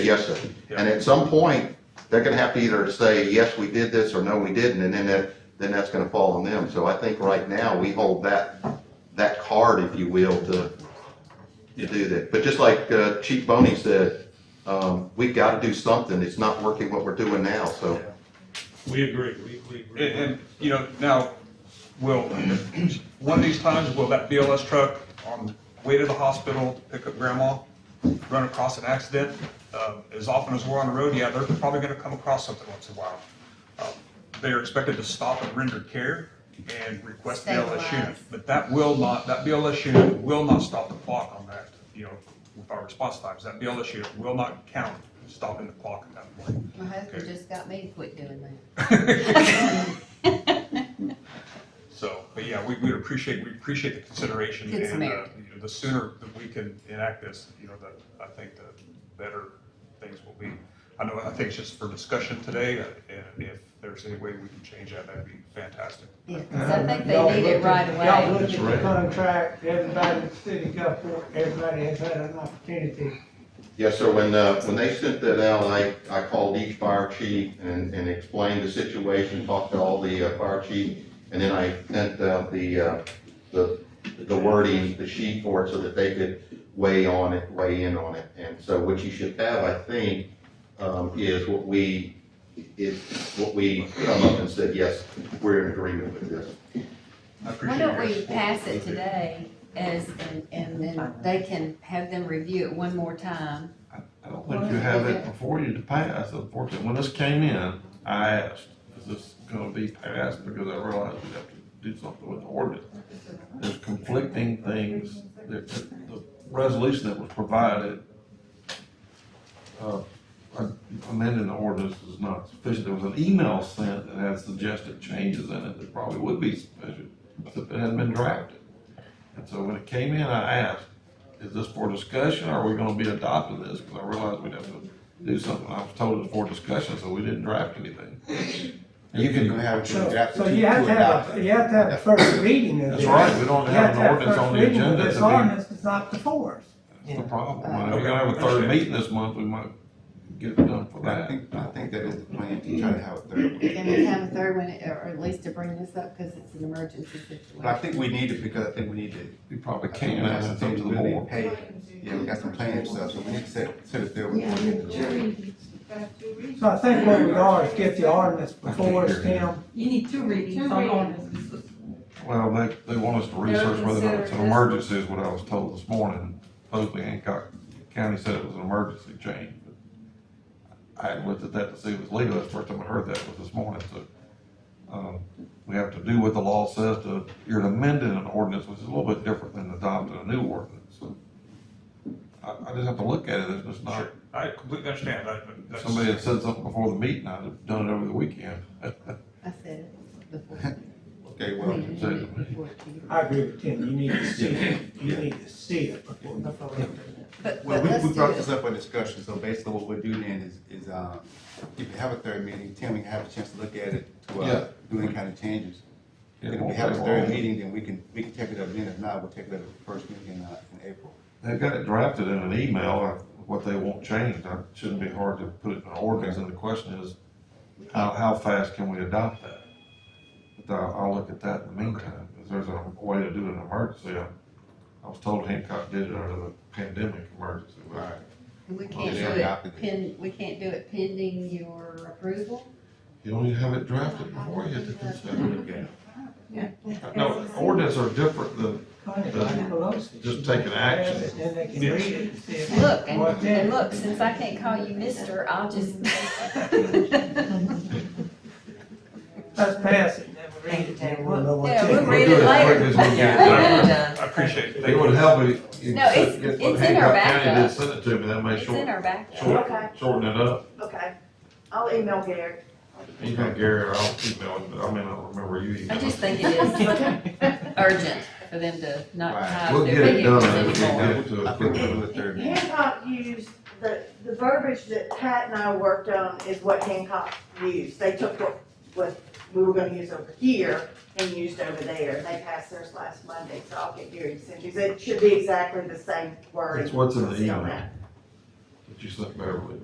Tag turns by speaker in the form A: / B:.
A: Yes, sir. And at some point, they're gonna have to either say, yes, we did this, or no, we didn't, and then that, then that's gonna fall on them. So I think right now, we hold that, that card, if you will, to, to do that. But just like uh, Chief Boney said, um, we gotta do something. It's not working what we're doing now, so.
B: We agree, we, we agree.
C: And, and, you know, now, will, one of these times, will that BLS truck on the way to the hospital to pick up grandma run across an accident? Uh, As often as we're on the road, yeah, they're probably gonna come across something once in a while. Uh, They are expected to stop and render care and request BLS unit.
D: Stabilize.
C: But that will not, that BLS unit will not stop the clock on that, you know, with our response times. That BLS unit will not count stopping the clock at that point.
D: My husband
C: Okay.
D: just got me to quit doing that.
C: So, but yeah, we, we appreciate, we appreciate the consideration.
D: Good
C: and uh,
D: Samaritan.
C: you know, The sooner that we can enact this, you know, the, I think the better things will be. I know, I think it's just for discussion today, uh, and if there's any way we can change that, that'd be fantastic.
D: Yeah, 'cause I think
E: Y'all
D: they need it
E: looked at-
D: right
E: Y'all
D: away.
E: looked at the contract, everybody in the city got for it, everybody has had an opportunity.
A: Yes, sir. When, uh, when they sent that out, I, I called each fire chief and, and explained the situation, talked to all the uh, fire chief, and then I sent out the, uh, the, the wording, the sheet for it so that they could weigh on it, weigh in on it. And so what you should have, I think, um, is what we, is what we come up and said, yes, we're in agreement with this.
C: I
D: Why
C: appreciate
D: don't
C: your
D: we
C: support.
D: pass it today as, and, and then they can have them review it one more time?
F: I don't think you have it before you to pass, unfortunately. When this came in, I asked, is this gonna be passed? Because I realized we have to do something with the ordinance. There's conflicting things, that the, the resolution that was provided, uh, amending the ordinance is not sufficient. There was an email sent that had suggested changes in it that probably would be sufficient, but it hadn't been drafted. And so when it came in, I asked, is this for discussion, or are we gonna be adopting this? Because I realized we'd have to do something, I was told it's for discussion, so we didn't draft anything.
G: You can have to
E: So,
G: adapt
E: so
G: to
E: you have to have, a- you have to have a first reading of
F: That's
E: this.
F: right, we don't
E: You have
F: have an
E: to have
F: ordinance
E: first
F: on the
E: reading of
F: agenda
E: this
F: to
E: ordinance, it's not before us.
F: be, that's the problem. When we're gonna have a third meeting this month, we might get it done for
G: I
F: that.
G: think, I think that is the plan, to try to have a third one.
D: Can we have a third one, or or at least to bring this up, because it's an emergency
G: But I
D: situation?
G: think we need it because I think we need to.
F: We probably
G: I think
F: can't
G: we got some
F: ask them
G: things
F: to
G: we
F: the
G: really
F: board.
G: pay. Yeah, we got some plans and stuff, so we need to set, set a third one.
E: So I think where we are is get the ordinance before us, Tim.
H: You need two readings on ordinance.
F: Well, they, they want us to research whether or not it's an emergency is what I was told this morning. Supposedly Hancock County said it was an emergency change. but I hadn't looked at that to see if it was legal. That's the first time I heard that was this morning, so. um, We have to do what the law says to, you're amending an ordinance, which is a little bit different than adopting a new ordinance, so. I, I just have to look at it, it's just not,
C: Sure. Uh, I completely understand, I, but that's.
F: somebody had said something before the meeting, I'd have done it over the weekend.
D: I said it before.
G: Okay,
D: We
G: well,
D: didn't
F: so-
D: do it before it came.
E: I agree with Tim, you need to see it, you need to see it before you vote.
D: But,
G: well,
D: but
G: we,
D: let's
G: we
D: do
G: brought this
D: it.
G: up for discussion, so basically what we're doing then is, is, um, if we have a third meeting, Tim, we can have a chance to look at it, to,
F: Yeah.
G: uh, do any kind of changes.
F: Yeah,
G: And if
F: won't
G: we have a
F: take
G: third
F: long.
G: meeting, then we can, we can take it up then, if not, we'll take it up at the first meeting in, uh, in April.
F: They've got it drafted in an email, or what they want changed, it shouldn't be hard to put it in an ordinance, and the question is, how, how fast can we adopt that? But I'll, I'll look at that in the meantime, if there's a way to do an emergency, I, I was told Hancock did it under the pandemic emergency. but-
G: Right.
D: And we
G: Well,
D: can't
G: they
D: do it
G: adopted it.
D: pen, we can't do it pending your approval?
F: You don't even have it drafted before you to consider it.
G: Okay.
F: No, ordinance are different than, Just take an action.
E: Then they can read it and see if.
D: Look, and,
E: Well,
D: and
E: then,
D: look, since I can't call you mister, I'll just.
E: let's pass it, then we read it, then we'll know what.
D: Yeah,
E: Tim-
D: we'll read
F: We'll do
D: it
F: it
D: later.
F: quick as we get
C: it
D: Done.
C: I appreciate it.
F: it would help if. you
D: No, it's-
F: get what
D: it's in our
F: Hancock County
D: backup.
F: did Send it to me, that may
D: It's in
F: short,
D: our back.
F: short,
I: Okay.
F: shorten it up.
I: Okay, I'll email Gary.
F: Email Gary, or I'll email him, but I mean, I don't remember you
D: I just
F: emailing.
D: think it is urgent for them to not
G: Right.
D: have
F: We'll
D: their
F: get it
D: vehicles
F: done, if we
D: anymore.
F: get to
G: I
F: a
G: think
F: quick
G: we'll
F: one.
G: do a third meeting.
I: Hancock used, the, the verbiage that Pat and I worked on is what Hancock used. They took what, what we were gonna use over here and used over there. They passed theirs last Monday, so I'll get Gary to send you. It should be exactly the same word.
F: It's what's in the
I: See on
F: email.
I: that.
F: that you sent Beverly.